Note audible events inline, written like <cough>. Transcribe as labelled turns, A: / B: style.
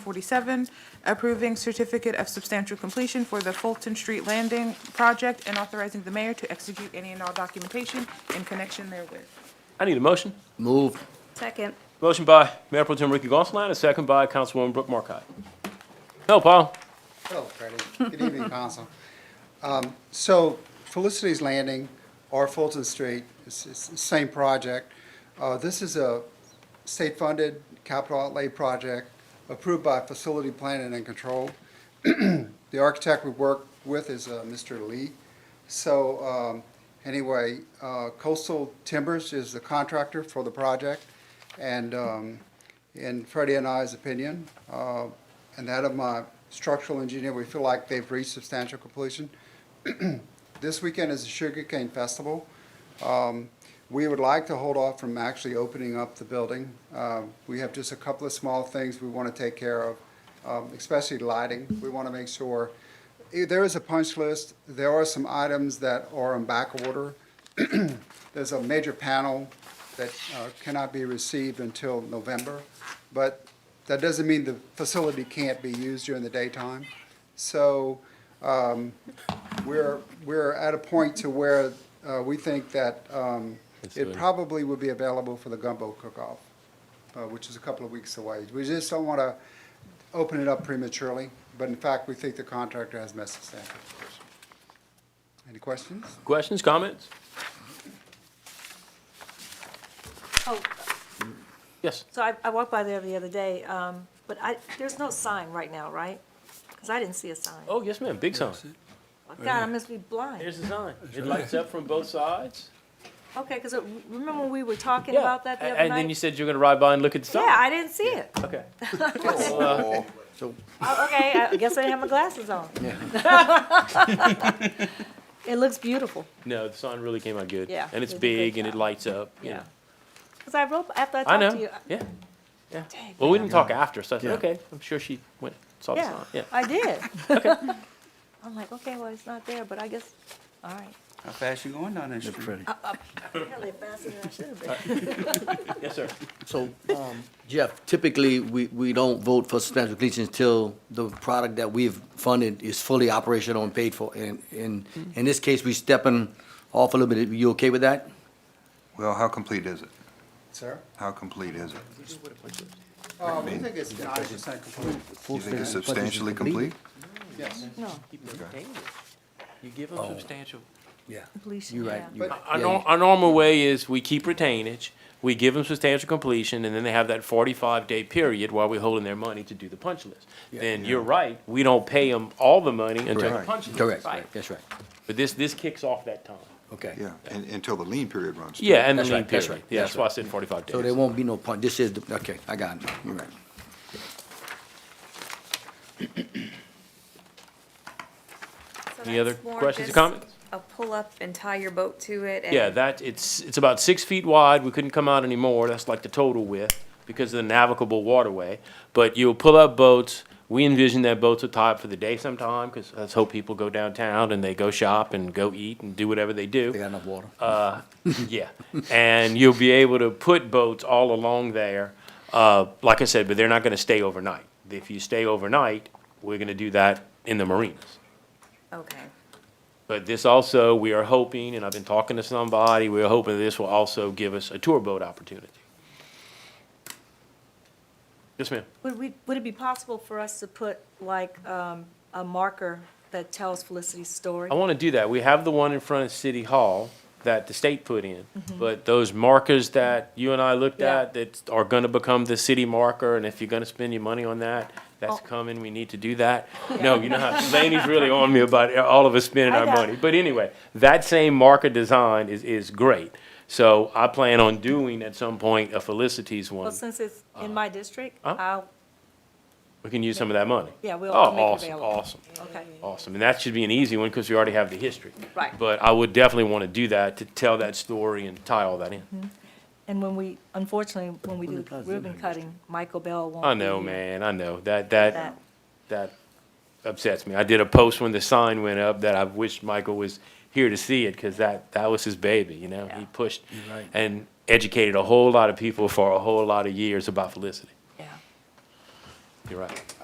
A: 47, approving certificate of substantial completion for the Fulton Street Landing project and authorizing the mayor to execute any and all documentation in connection therewith.
B: I need a motion.
C: Moved.
D: Second.
B: Motion by Mayor Pro Tem Ricky Gonsalas, a second by Councilwoman Brooke Markcott. Hello, Paul.
E: Hello, Freddie. Good evening, Council. Um, So Felicity's Landing or Fulton Street, it's it's the same project. Uh, This is a state-funded capital outlay project approved by Facility Planning and Control. The architect we work with is uh, Mr. Lee. So um, anyway, uh, Coastal Timbers is the contractor for the project, and um, in Freddie and I's opinion, uh, and that of my structural engineer, we feel like they've reached substantial completion. <clears throat> This weekend is the Sugar Cane Festival. Um, We would like to hold off from actually opening up the building. Uh, We have just a couple of small things we want to take care of, um, especially lighting. We want to make sure, eh, there is a punch list. There are some items that are in back order. <clears throat> There's a major panel that uh, cannot be received until November, but that doesn't mean the facility can't be used during the daytime. So um, we're, we're at a point to where uh, we think that um, it
B: Absolutely.
E: probably would be available for the gumbo cook-off, uh, which is a couple of weeks away. We just don't want to open it up prematurely, but in fact, we think the contractor has met substantial completion. Any questions?
B: Questions, comments?
D: Oh,
B: Yes.
D: so I, I walked by there the other day, um, but I, there's no sign right now, right? Because I didn't see a sign. Oh,
B: Oh, yes, ma'am, big sign.
D: God, I must be blind.
B: Here's the sign. It lights up from both sides.
D: Okay, because remember when we were talking
B: Yeah.
D: about that the
B: A-
D: other
B: And then you
D: night?
B: said you're gonna ride by and look at the sign.
D: Yeah, I didn't see it.
B: Okay.
D: Oh, Okay, I guess I didn't have my glasses on. <laughs> It looks beautiful,
B: No, the sign really came out good.
D: Yeah,
B: And it's
D: they did a good
B: big and it
D: job.
B: lights up, you
D: yeah.
B: know.
D: Because I wrote, after I
B: I
D: talked to you.
B: know, yeah, yeah.
D: Dang,
B: Well, we didn't talk after, so I said,
C: Yeah.
B: okay, I'm sure she went, saw the sign, yeah.
D: Yeah, I
B: <laughs>
D: did. <laughs> I'm like, okay, well, it's not there, but I guess, all
B: <laughs>
D: right.
F: How fast you going down that street?
C: Freddie.
D: Apparently faster than I should have been.
B: Yes, sir.
C: So, um, Jeff, typically, we, we don't vote for substantial completion until the product that we've funded is fully operational and paid for. And, and in this case, we stepping off a little bit. You okay with that?
F: Well, how complete is it?
E: Sir?
F: How complete is it?
E: Uh, we think it's ninety percent complete,
F: You think it's substantially complete?
E: yes.
D: No,
B: You give
C: Oh.
B: them substantial.
C: Yeah,
D: completion,
C: you're right.
D: yeah.
C: you're right.
B: Our,
C: Yeah,
B: nor- our normal way is we keep retainage, we give them substantial completion, and then they have that forty-five day period while we're holding their money to do the punch list. Then you're right, we don't pay them all the money until the
C: Correct.
B: punch list.
C: Correct,
B: is done.
C: right, that's right.
B: But this, this kicks off that time.
C: Okay.
F: Yeah, and, until the lean period runs. too.
B: Yeah, and the
C: That's
B: lean
C: right, that's
B: period.
C: right,
B: Yeah,
C: that's
B: that's why I said forty-five
C: So there
B: days.
C: won't be no punch. This is, the- okay, I got it. You're right.
G: So
B: Any other
G: that's more
B: questions or
G: just
B: comments?
G: A pull-up and tie your boat to it and.
B: Yeah, that, it's, it's about six feet wide, we couldn't come out anymore, that's like the total width, because of the navigable waterway. But you'll pull up boats, we envision that boats will tie up for the day sometime, because let's hope people go downtown and they go shop and go eat and do whatever they do.
C: They got enough water.
B: Uh, yeah, and you'll be able to put boats all along there. Uh, like I said, but they're not gonna stay overnight. If you stay overnight, we're gonna do that in the marinas.
G: Okay.
B: But this also, we are hoping, and I've been talking to somebody, we're hoping this will also give us a tour boat opportunity. Yes, ma'am.
D: Would we, would it be possible for us to put like um, a marker that tells Felicity's story?
B: I want to do that. We have the one in front of City Hall that the state put in. But those markers that you and I looked
D: Mm-hmm. Yeah.
B: at that are going to become the city marker, and if you're going to spend your money on that, that's
D: Oh.
B: coming, we need to do
D: <laughs>
B: that. No, you know how, Laney's really on me about all of us spending
D: I
B: our
D: got
B: money.
D: it.
B: But anyway, that same marker design is, is great. So I plan on doing at some point a Felicity's
D: Well,
B: one. Uh-huh.
D: since it's in my district,
B: Huh?
D: I'll,
B: We can use some of that money.
D: Yeah, we'll
B: Oh,
D: make it
B: awesome,
D: available.
B: Awesome.
D: okay.
B: Awesome, and that should be an easy one because we already have the history.
D: Right.
B: But I would definitely want to do that, to tell that story and tie all that in.
D: And when we, unfortunately, when we do ribbon cutting, Michael Bell won't be
B: I know,
D: here.
B: man, I know, that,
D: Mm-hmm. That-
B: that, that upsets me. I did a post when the sign went up that I wished Michael was here to see it because that, that was his baby, you know? He
D: Yeah.
B: pushed and educated a whole lot of people for a whole lot of years about Felicity.
D: Yeah.
B: You're right.